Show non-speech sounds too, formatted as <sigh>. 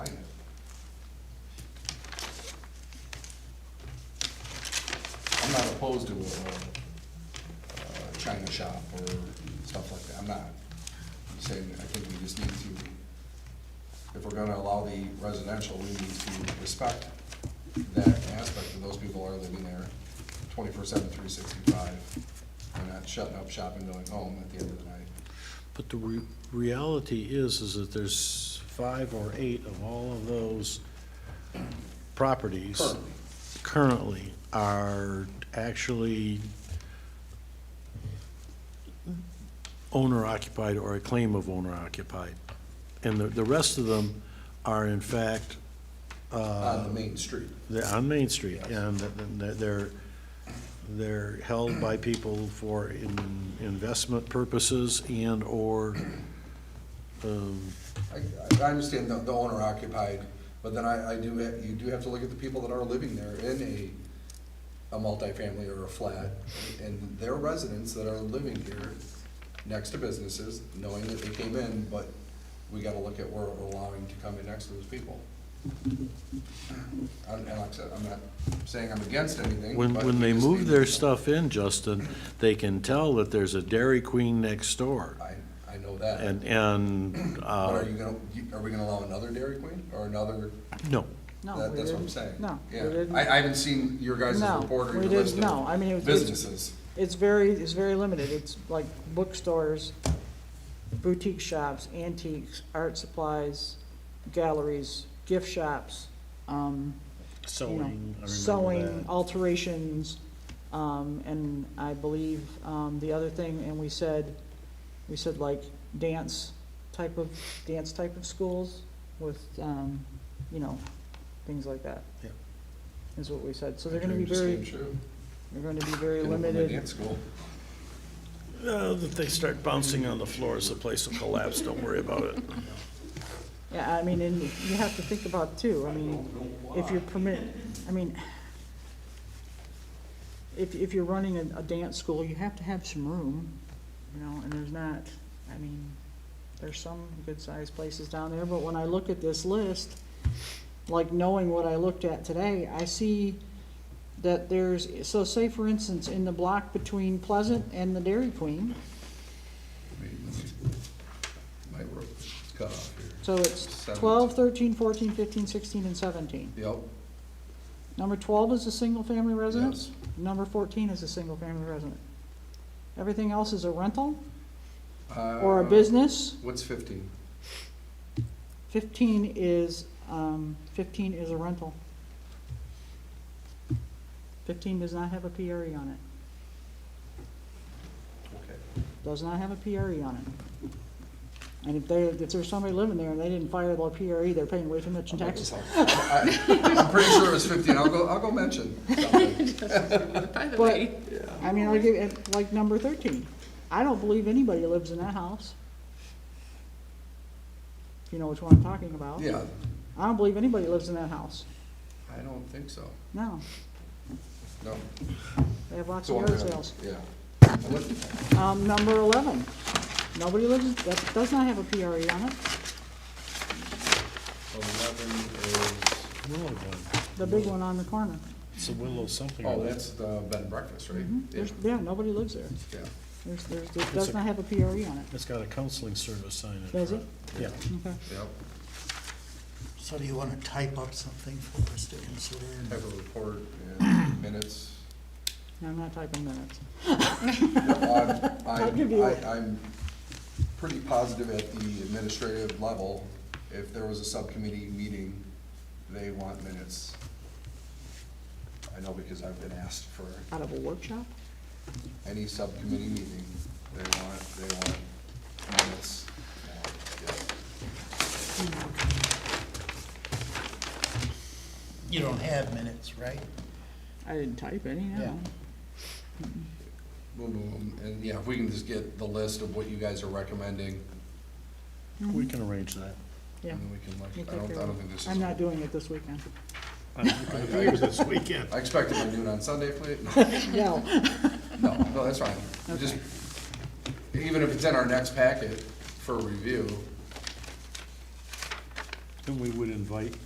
opposed to a uh, China shop or stuff like that, I'm not. I'm saying, I think we just need to, if we're gonna allow the residential, we need to respect that aspect of those people are living there twenty-four seven, three sixty-five. They're not shutting up shop and going home at the end of the night. But the re- reality is, is that there's five or eight of all of those properties. Currently. currently are actually owner occupied or a claim of owner occupied. And the, the rest of them are in fact, On uh, the main street. they're on Main Street, Yes. and th- th- they're- they're, they're held by people for in- investment purposes and/or, um, I, I understand the, the owner occupied, but then I, I do, ha- you do have to look at the people that are living there in a, a multifamily or a flat, and their residents that are living here next to businesses, knowing that they came in, but we gotta look at where we're allowing to come in next to those people. And and like I said, I'm not saying I'm against anything, When, but when we they just need move to know. their stuff in, Justin, they can tell that there's a Dairy Queen next door. I, I know that, And, and, but uh, are you gonna, you- are we gonna allow another Dairy Queen, or another? no, No, That- we That's what I'm didn't. saying. No, we Yeah, didn't. I, I haven't seen your guys' No, report or we your didn't. list No, I mean, it of was- businesses. It's very, it's very limited. It's like bookstores, boutique shops, antiques, art supplies, galleries, gift shops, um, you know, sewing, I remember sewing, that. alterations, um, and I believe, um, the other thing, and we said, we said like dance type of, dance type of schools with, um, you know, things like that. Yep. Is what we said. So they're gonna be Dream just very, came true. they're gonna be very Didn't want my limited. dance school. Uh, If they start bouncing on the floors, the place will collapse, don't worry about it. Yeah, I mean, and you have to think about too, I mean, if you're permit, I mean, if, if you're running a, a dance school, you have to have some room, you know, and there's not, I mean, there's some good-sized places down there, but when I look at this list, like knowing what I looked at today, I see that there's, so say for instance, in the block between Pleasant and the Dairy Queen, My rope's cut off here. so it's Seventeen. twelve, thirteen, fourteen, fifteen, sixteen, and seventeen. Yep, Number twelve is a single-family residence. Yes. Number fourteen is a single-family resident. Everything else is a rental or a Uh, business. What's fifteen? Fifteen is, um, fifteen is a rental. Fifteen does not have a PRE on it, Okay. does not have a PRE on it. And if they, if there's somebody living there and they didn't fire their PRE, E, they're paying way too much in taxes. I- I'm pretty sure it was fifteen, I'll go, I'll go mention. <laughs> something. But, I mean, I'll give, it like, number thirteen, I don't believe anybody lives in that house. If you know which one I'm talking about. Yeah, I don't believe anybody lives in that house, I don't think so, no, no. they have lots So of I'm yard gonna- sales. Yeah. I looked- Um, number eleven, nobody lives, that does not have a PRE on it, Eleven is, Willow one. the big one on the corner. It's a Willow something. oh, that's the bed and breakfast, right? Yeah, Mm-hmm. There's, yeah, nobody lives there, yeah. there's, there's, it does a- not have a PRE on it, It's got a counseling service sign in does it? front. Yeah. Okay, Yep, So do you want to type up something for us to consider? have a report and <coughs> minutes. No, I'm not typing minutes, I'm, <laughs> I'll give you I'm, it. I- I'm pretty positive at the administrative level, if there was a subcommittee meeting, they want minutes. I know because I've been asked for out of a workshop? any subcommittee meeting, they want, they want minutes. Yeah. You don't have minutes, right? I didn't type any, Yeah. no. Boom, boom, and yeah, if we can just get the list of what you guys are recommending, We can arrange that. Yeah. and then we can You like, I take don't, care I of don't it. think this is. I'm not doing it this weekend. I'm looking for you this weekend. I expected to do it on Sunday, please. <laughs> No. No, no, that's fine. We Just, even if it's in our next packet for review, And we would invite